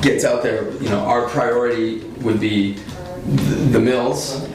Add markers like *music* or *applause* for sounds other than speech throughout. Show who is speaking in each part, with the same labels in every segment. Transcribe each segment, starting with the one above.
Speaker 1: gets out there, you know, our priority would be th- the mills,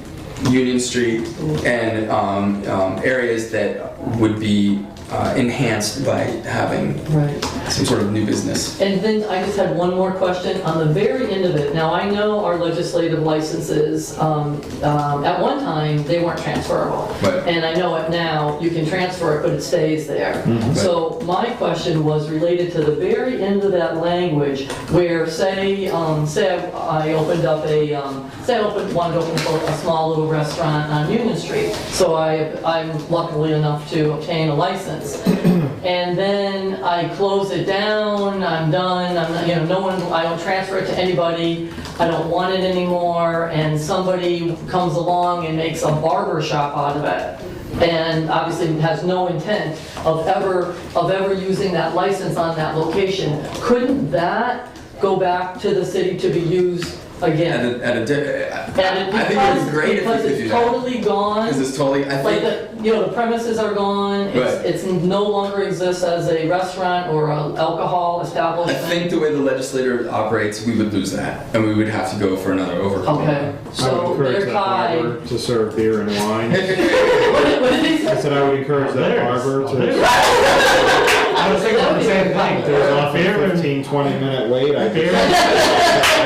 Speaker 1: Union Street, and um, um, areas that would be uh, enhanced by having
Speaker 2: Right.
Speaker 1: some sort of new business.
Speaker 2: And then I just had one more question on the very end of it. Now, I know our legislative licenses, um, um, at one time, they weren't transferable.
Speaker 1: Right.
Speaker 2: And I know it now, you can transfer it, but it stays there. So my question was related to the very end of that language where say, um, say I opened up a, um, say I opened, wanted to open a a small little restaurant on Union Street. So I, I'm luckily enough to obtain a license. And then I close it down, I'm done, I'm, not- you know, no one, I don't transfer it to anybody, I don't want it anymore, and somebody comes along and makes a barber shop out of it, and obviously has no intent of ever, of ever using that license on that location, couldn't that go back to the city to be used
Speaker 1: At
Speaker 2: again?
Speaker 1: a, at a, di-
Speaker 2: And it-
Speaker 1: I think it would be great if
Speaker 2: because-
Speaker 1: we could do
Speaker 2: Because it's
Speaker 1: that.
Speaker 2: totally gone.
Speaker 1: Because it's totally, I think,
Speaker 2: Like, the you know, the premises are gone,
Speaker 1: Right.
Speaker 2: it's, it's no longer exists as a restaurant or a alcohol
Speaker 1: I
Speaker 2: establishment.
Speaker 1: think the way the legislator operates, we would lose that, and we would have to go for another overhaul.
Speaker 2: Okay,
Speaker 3: I would
Speaker 2: so
Speaker 3: encourage
Speaker 2: they're
Speaker 3: that
Speaker 2: tied.
Speaker 3: barber to serve beer and
Speaker 2: *laughs*
Speaker 3: wine.
Speaker 2: What did he say?
Speaker 3: I said I would encourage that barber to.
Speaker 4: *laughs* I was thinking the same thing.
Speaker 3: There's often a 15, 20 minute wait. I
Speaker 4: Beer.
Speaker 3: think.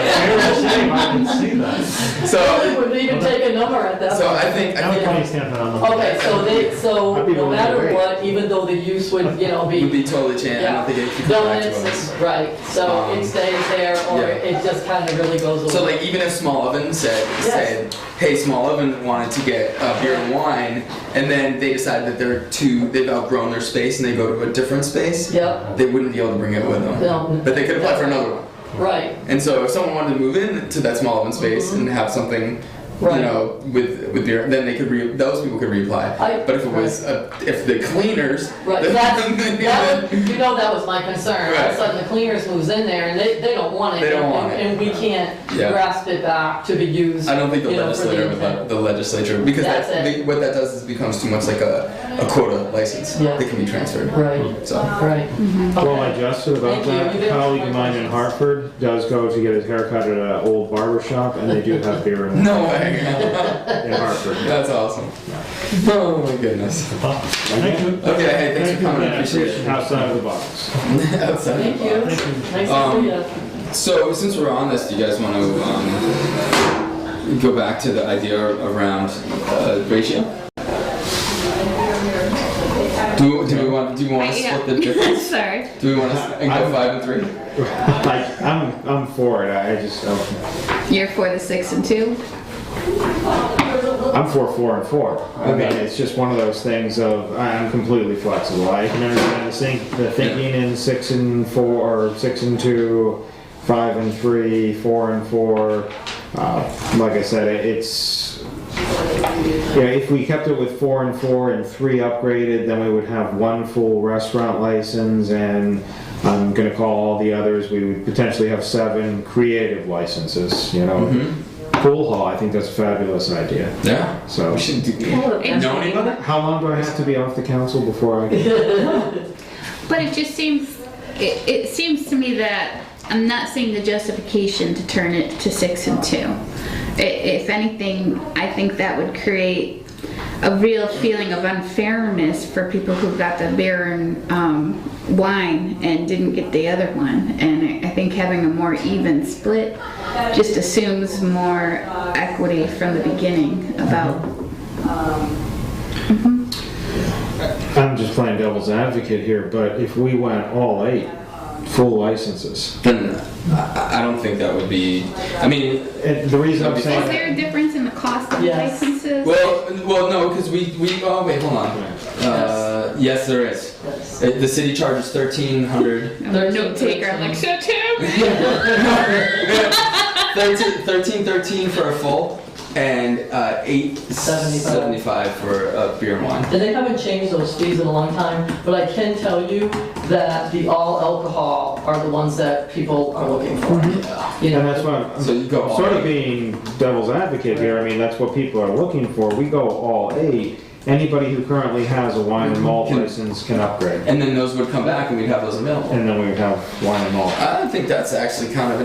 Speaker 4: Beer is a shame, I didn't see that.
Speaker 1: *laughs* So,
Speaker 2: They Wouldn't even take a number at that.
Speaker 1: so
Speaker 2: point.
Speaker 1: I think, I
Speaker 4: Now we
Speaker 1: think
Speaker 4: can't stand that on the.
Speaker 2: Okay, so they, so
Speaker 3: I'd be
Speaker 2: no
Speaker 3: willing to
Speaker 2: matter
Speaker 3: wait.
Speaker 2: what, even though the use would, you know,
Speaker 1: it would
Speaker 2: be
Speaker 1: be totally changed. I don't think it could come back to us.
Speaker 2: donuts, right, so
Speaker 1: Um,
Speaker 2: it stays there or
Speaker 1: yeah.
Speaker 2: it just kind of really goes
Speaker 1: So
Speaker 2: away.
Speaker 1: like even if Small Oven said,
Speaker 2: Yes.
Speaker 1: said, hey, Small Oven wanted to get uh, beer and wine, and then they decided that they're too, they've outgrown their space and they go to a different space,
Speaker 2: Yep,
Speaker 1: they wouldn't be able to bring it with them.
Speaker 2: No.
Speaker 1: But they could apply for another one.
Speaker 2: right,
Speaker 1: And so if someone wanted to move in to that Small Oven space and have something,
Speaker 2: Mm-hmm. Right.
Speaker 1: you know, with with beer, then they could re- those people could reapply.
Speaker 2: I-
Speaker 1: but if it was uh, if the cleaners, *laughs*
Speaker 2: right.
Speaker 1: then-
Speaker 2: That's, that would, you know, that was my concern. All of
Speaker 1: Right.
Speaker 2: a sudden the cleaners moves in there and they, they don't want it.
Speaker 1: They don't
Speaker 2: and-
Speaker 1: want it.
Speaker 2: And we can't
Speaker 1: Yeah.
Speaker 2: grasp it back to be used.
Speaker 1: I don't think the
Speaker 2: you know, for
Speaker 1: legislator would
Speaker 2: intent.
Speaker 1: let the legislature because
Speaker 2: That's
Speaker 1: that,
Speaker 2: it.
Speaker 1: the- what that does is becomes too much like a, a quota license
Speaker 2: Yeah.
Speaker 1: that can be transferred.
Speaker 2: Right,
Speaker 1: So
Speaker 2: right.
Speaker 3: Well,
Speaker 2: Okay.
Speaker 3: I jested about
Speaker 2: Thank you.
Speaker 3: that.
Speaker 2: You
Speaker 3: A
Speaker 2: did
Speaker 3: colleague
Speaker 2: answer
Speaker 3: of
Speaker 2: my
Speaker 3: mine
Speaker 2: questions.
Speaker 3: in Hartford does go to get his haircut at an old barber shop, and they do have beer and
Speaker 1: no way. *laughs*
Speaker 3: wine
Speaker 2: *laughs*
Speaker 3: in Hartford.
Speaker 1: That's awesome. Oh my goodness.
Speaker 4: Thank you.
Speaker 1: Okay, hey, thanks
Speaker 3: Thank
Speaker 1: for
Speaker 3: you,
Speaker 1: coming. I
Speaker 3: man.
Speaker 1: appreciate it.
Speaker 3: Outside of the
Speaker 1: *laughs*
Speaker 3: box.
Speaker 1: Outside of the
Speaker 2: Thank you.
Speaker 1: box.
Speaker 2: Nice to
Speaker 1: Um,
Speaker 2: see you.
Speaker 1: So since we're on this, do you guys want to um, go back to the idea around uh, ratio? Do, do we want do we want to split
Speaker 5: *laughs*
Speaker 1: the difference?
Speaker 5: Sorry.
Speaker 1: Do we want to go five and three?
Speaker 3: Like, I'm, I'm for it. I I just, I'm-
Speaker 5: You're for the six and two?
Speaker 3: I'm for four and four. I mean,
Speaker 1: Okay.
Speaker 3: it's just one of those things of, I'm completely flexible. I can understand the think, the thinking in six and four, or six and two, five and three, four and four. Uh, like I said, it- it's, you know, if we kept it with four and four and three upgraded, then we would have one full restaurant license and I'm gonna call all the others, we would potentially have seven creative licenses, you know? Pool hall, I think that's a fabulous idea.
Speaker 1: Yeah.
Speaker 3: So,
Speaker 1: We should do. Know
Speaker 5: Interesting.
Speaker 1: anybody?
Speaker 3: how long do I have to be off the council before I get?
Speaker 5: But it just seems, it, it seems to me that I'm not seeing the justification to turn it to six and two. I- If anything, I think that would create a real feeling of unfairness for people who got the beer and um, wine and didn't get the other one. And I- I think having a more even split just assumes more equity from the beginning about
Speaker 3: I'm just playing devil's advocate here, but if we went all eight, full licenses,
Speaker 1: Then I, I don't think that would be. I mean,
Speaker 3: and the reason I'm
Speaker 5: Is
Speaker 3: saying,
Speaker 5: there a difference in the cost of
Speaker 2: Yes.
Speaker 5: licenses?
Speaker 1: well, well, no, because we we. Oh wait, hold on. Uh, yes, there is.
Speaker 2: Yes.
Speaker 1: Uh, The city charges thirteen hundred.
Speaker 5: I'm a note taker, I'm like, so too?
Speaker 1: Thirteen, thirteen, thirteen for a full, and uh, eight
Speaker 2: Seventy-five.
Speaker 1: seventy-five for a beer and wine.
Speaker 2: And they haven't changed those fees in a long time, but I can tell you that the all alcohol are the ones that people are looking for. You
Speaker 3: and
Speaker 2: know,
Speaker 3: that's why
Speaker 1: So
Speaker 3: I'm
Speaker 1: you go all
Speaker 3: sort of
Speaker 1: eight.
Speaker 3: being devil's advocate here, I mean, that's what people are looking for, we go all eight, anybody who currently has a wine and *laughs* malt
Speaker 1: Can-
Speaker 3: license can upgrade,
Speaker 1: and then those would come back, and we'd have those available.
Speaker 3: and then we would have wine and malt.
Speaker 1: I think that's actually kind of